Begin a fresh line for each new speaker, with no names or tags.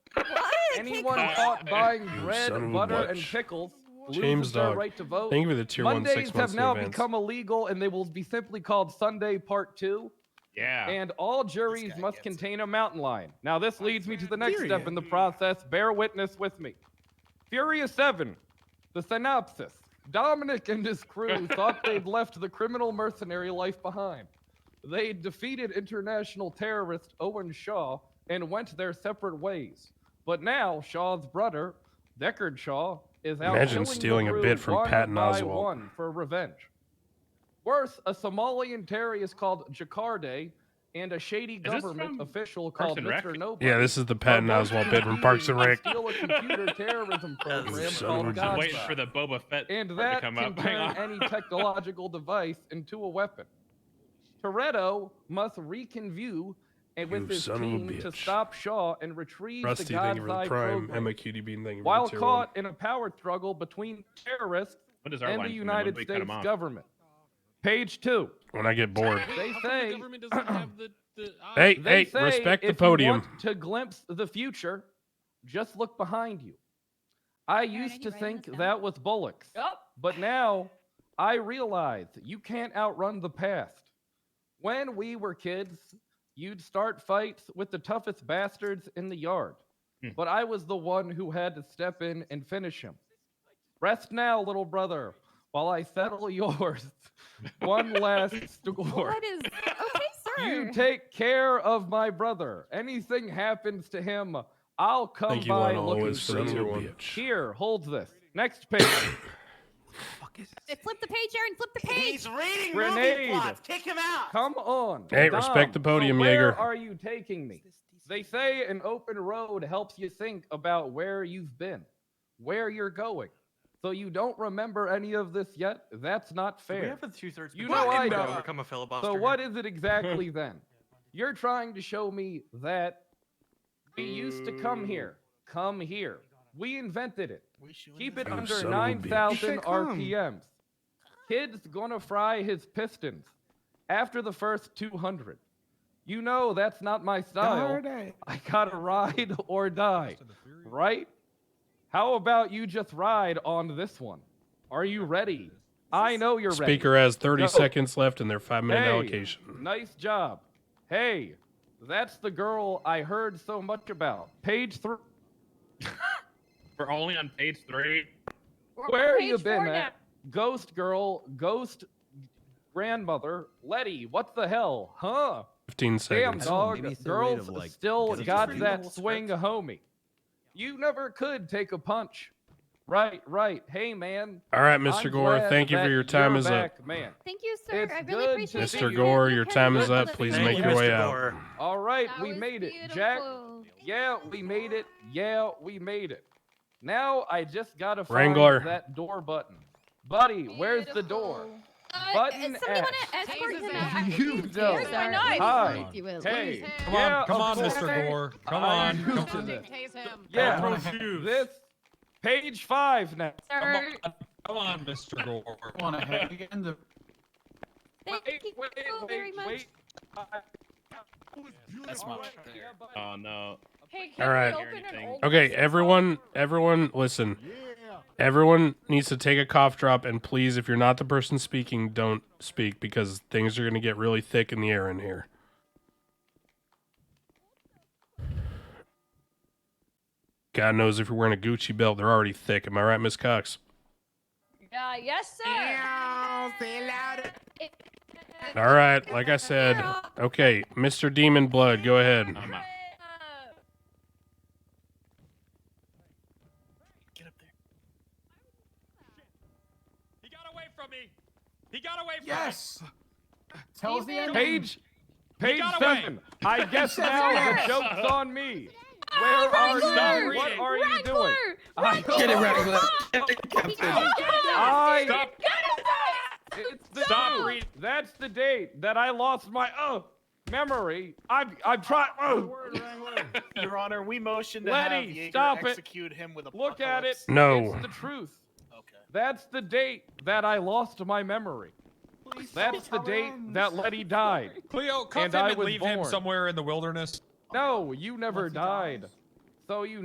Anyone
cake
caught buying
You
bread,
son of a
butter, and
bitch.
pickles loses
James
their
Dog.
right to vote.
Thank you for the tier one
Mondays
six months
have now
in advance.
become illegal, and they will be simply called Sunday Part Two.
Yeah.
And all juries
guy
must
gets it.
contain a mountain lion. Now, this leads me to the next step
Period.
in the process. Bear witness with me. Furious 7, the synopsis. Dominic and his crew thought they'd left the criminal mercenary life behind. They defeated international terrorist Owen Shaw and went their separate ways. But now Shaw's brother, Deckard Shaw, is out
Imagine
killing the
stealing a
crew
bit from
one
Patton
by
Oswalt.
one for revenge. Worse, a Somalian terrorist called Jacarde and a shady
this
government
from
official
Parks
called
and Rec?
Mr. Nobody.
yeah, this is the Patton Oswalt bid from Parks and Rec.
Steal a computer terrorism program called
Son of a
I'm
God.
waiting
Godspot.
for the Boba Fett
and
part
that
to come
can
up. Hang
turn
on.
any technological device into a weapon. Toretto must reconview and with
You
his
son of a
team to
bitch.
stop Shaw and retrieve the
Rusty, thank you for the
God's
prime.
program.
Emma Cutie Bean, thank you for
While
the tier one.
caught in a power struggle between terrorists
When does our
and
line
the
come in? When do
United
we cut
States
'em off?
government. Page two.
When I get bored.
They
Wait, how come the
say-
government doesn't have the- the eye?
Hey,
They
hey,
say
respect the
if you
podium.
want to glimpse the future, just look behind you. I used
you
to
writing
think
this down?
that was Bullock's,
Oh,
but now I realize you can't outrun the past. When we were kids, you'd start fights with the toughest bastards in the yard,
Hmm.
but I was the one who had to step in and finish him. Rest now, little brother, while I settle yours. One last score.
what is okay, sir?
You take care of my brother. Anything happens to him, I'll come
Thank you,
by
Lionel
looking
Owens,
for
son of a
you.
bitch.
Here, hold this. Next page.
flip the page, Aaron. Flip the page.
He's reading
Grenade.
movie plots. Kick him out.
Come on.
Hey, respect the
Dom,
podium,
so Where
Jaeger.
are you taking me? They say an open road helps you think about where you've been, where you're going. So you don't remember any of this yet? That's not
Did
fair.
We have a two-thirds.
You
majority
know I
to
don't.
Overcome a filibuster.
So what is it exactly then? You're trying to show me that we used to come here. Come here. We invented it. Keep it
You
under
son of a bitch.
9,000
You said come.
RPMs. Kid's gonna fry his pistons after the first 200. You know that's not my style.
Darn
I gotta ride or die, right? How about you just ride on this one? Are you ready? I know you're ready.
Speaker has 30
Go.
seconds left in their five minute
Hey,
allocation.
Nice job. Hey, that's the girl I heard so much about. Page three.
We're only on page three.
We're on
Where have
page
you been
four now.
at? Ghost girl, ghost grandmother, Letty, what the hell? Huh?
15
Damn,
seconds.
dog.
maybe it's the rate
Girls
of, like,
still
is it
got
just
read the
that
whole
swing, homie. You never could take a punch. Right, right. Hey, man.
All right, mister
I'm
Gore,
glad
thank you for
that
your time
you're
is up.
back, Man.
Thank you, sir.
It's
I
good
really
to
appreciate
see
it.
you.
Mr. Gore, your time is
Look
up.
at
Please
the
make
page.
your way
Mr.
out.
Gore.
All right,
That
we
was
made it. Jack,
beautiful.
Yeah, we made it. Yeah, we made it. Now I just gotta find
Wrangler.
that door button. Buddy, where's the door?
Beautiful.
uh, Button somebody
somebody
wanna
want
F.
to escort him
out?
out?
You don't.
Here's my knife.
Hi.
If you will.
Hey,
Come
yeah,
on, come
of
on,
course.
Mr. Gore. Come
I
on.
used
Come
to
on.
this.
Tase him.
Yeah,
Don't
from
throw shoes.
this page five now.
Sir,
Come on, Mr. Gore.
Want to hang in the
thank
Wait,
you
wait,
so
wait,
very much.
wait. I-
That's
All
much
right,
better.
yeah, buddy.
Oh no.
Hey,
All right.
open an old
Okay, everyone, everyone, listen. Everyone needs to take a cough drop, and please, if you're not the person speaking, don't speak because things are going to get really thick in the air in here. God knows if you're wearing a Gucci belt, they're already thick. Am I right, Miss Cox?
Uh, yes, sir.
All right, like I said. Okay, Mr. Demon Blood, go ahead.
I'm out.
Get up there.
He got away from me. He got away from
yes. Tell us the
Steven.
end.
Page, page
got away.
seven. I guess now the
Yes.
joke's on me.
Oh,
Where are
Wrangler!
you? What are you doing? I-
Get it, Wrangler.
I-
Stop.
It's the
Stop
date.
reading.
That's the date that I lost my oh memory. I'm I'm trying. Oh,
Your Honor, we motion to
Letty,
have Jaeger
stop it.
execute him with a
look at it.
No.
It's the truth.
Okay.
That's the date that I lost my memory. That's the date that Letty died.
Cleo, cuff
And
him
I
and
was
leave him
born.
somewhere in the wilderness.
No, you never died. So you